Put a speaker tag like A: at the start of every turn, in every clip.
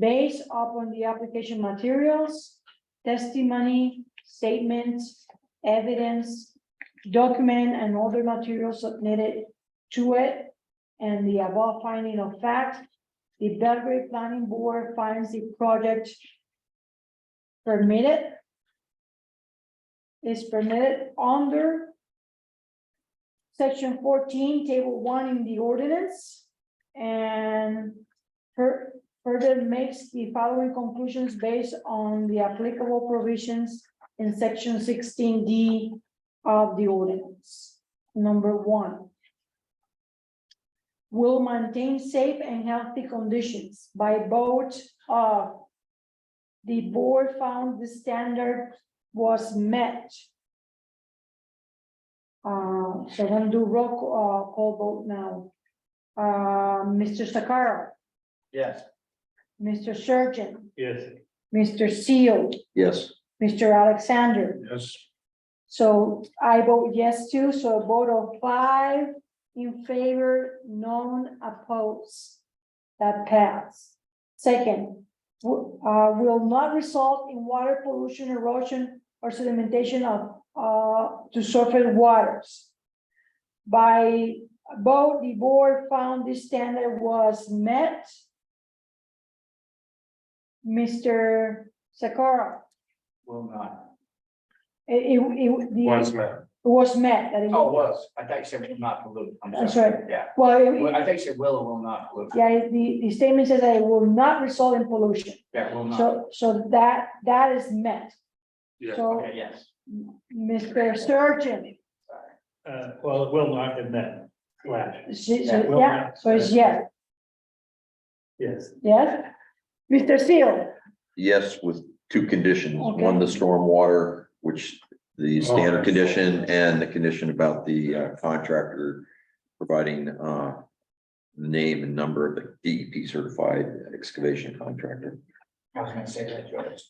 A: based upon the application materials, testimony, statements, evidence, document, and other materials submitted to it, and the above finding of fact, the Belgrade Planning Board finds the project permitted is permitted under section fourteen, table one in the ordinance, and per- further makes the following conclusions based on the applicable provisions in section sixteen D of the ordinance. Number one. Will maintain safe and healthy conditions by both of the board found the standard was met. Uh, so I'm gonna do roll, ca- uh, call vote now. Uh, Mr. Sakara,
B: Yes.
A: Mr. Surgeon,
B: Yes.
A: Mr. Seal,
C: Yes.
A: Mr. Alexander.
B: Yes.
A: So I vote yes too, so a vote of five in favor, none opposed. That passed. Second, w- uh, will not result in water pollution, erosion, or sedimentation of, uh, to surface waters. By vote, the board found this standard was met. Mr. Sakara,
B: Will not.
A: it, it- it- the-
D: Was met.
A: It was met, that it
B: Oh,
A: was,
B: was. I thought you said will not pollute. I'm
A: That's
B: sorry.
A: right.
B: Yeah.
A: well,
B: Well,
A: it-
B: I think you said will or will not pollute.
A: yeah, the, the statement says that it will not result in pollution.
B: Yeah, will not.
A: So, so that, that is met.
D: Yeah.
A: So,
B: Okay, yes.
A: Mr. Surgeon,
D: Uh, well, it will not have met. Right.
A: she-
B: Yeah,
D: will
A: yeah,
D: not.
A: so it's yes,
D: Yes.
A: yes? Mr. Seal,
C: Yes, with two conditions,
A: Okay.
C: one, the stormwater, which the standard
D: Oh,
C: condition and the condition about the uh, contractor providing uh. Name and number of the DEP certified excavation contractor.
B: I was gonna say that, George.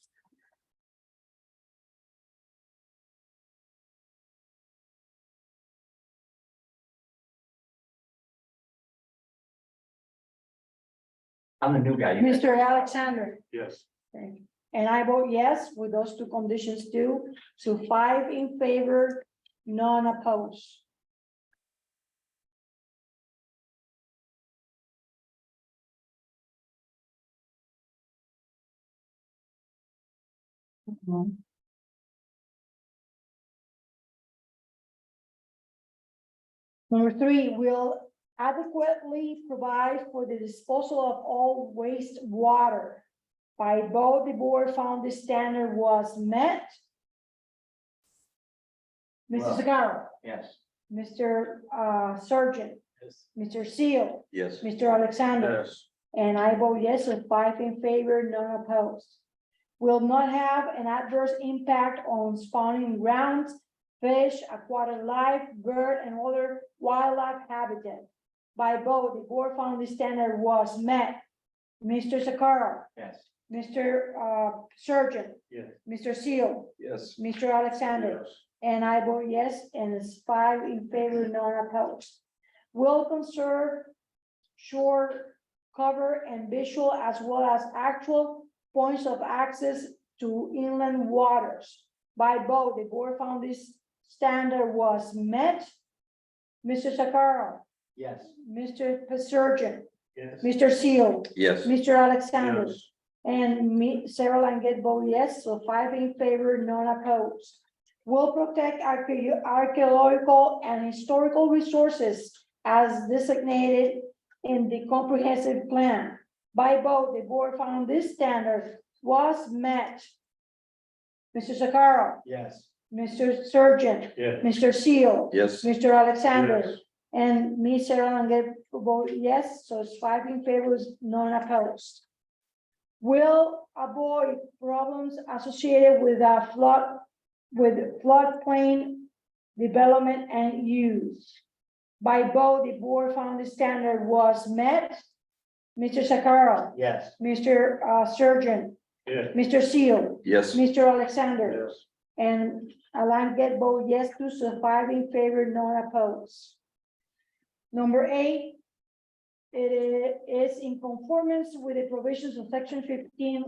B: I'm the new guy. you-
A: Mr. Alexander,
D: Yes.
A: and I vote yes with those two conditions too, so five in favor, none opposed. Number three, will adequately provide for the disposal of all wastewater. By both the board found the standard was met. Mr.
B: Well-
A: Sagara,
B: Yes.
A: Mr. uh, Surgeon, Mr. Seal,
C: Yes.
A: Mr. Alexander. And I vote yes with five in favor, none opposed. Will not have an adverse impact on spawning grounds, fish, aquatic life, bird, and other wildlife habitat. By vote, the board found the standard was met. Mr. Sakara,
B: Yes.
A: Mr. uh, Surgeon.
D: Yes.
A: Mr. Seal,
C: Yes.
A: Mr. Alexander. And I vote yes, and it's five in favor, none opposed. Will conserve shore cover and visual as well as actual points of access to inland waters. By vote, the board found this standard was met. Mr. Sakara,
B: Yes.
A: Mr. Surgeon,
D: Yes.
A: Mr. Seal,
C: Yes,
A: Mr. Alexander.
D: Yes.
A: And me, Sarah Langet vote yes, so five in favor, none opposed. Will protect archae- archaeological and historical resources as designated in the comprehensive plan. By vote, the board found this standard was met. Mr. Sakara,
B: Yes.
A: Mr. Surgeon,
D: Yes.
A: Mr. Seal,
C: yes,
A: Mr. Alexander, and me, Sarah Langet, vote yes, so it's five in favor, none opposed. Will avoid problems associated with a flood, with floodplain development and use. By vote, the board found the standard was met. Mr. Sakara,
B: Yes.
A: Mr. uh, Surgeon,
D: Yes.
A: Mr. Seal,
C: yes,
A: Mr. Alexander.
D: Yes.
A: And Alan get vote yes to so five in favor, none opposed. Number eight, It is in conformance with the provisions of section fifteen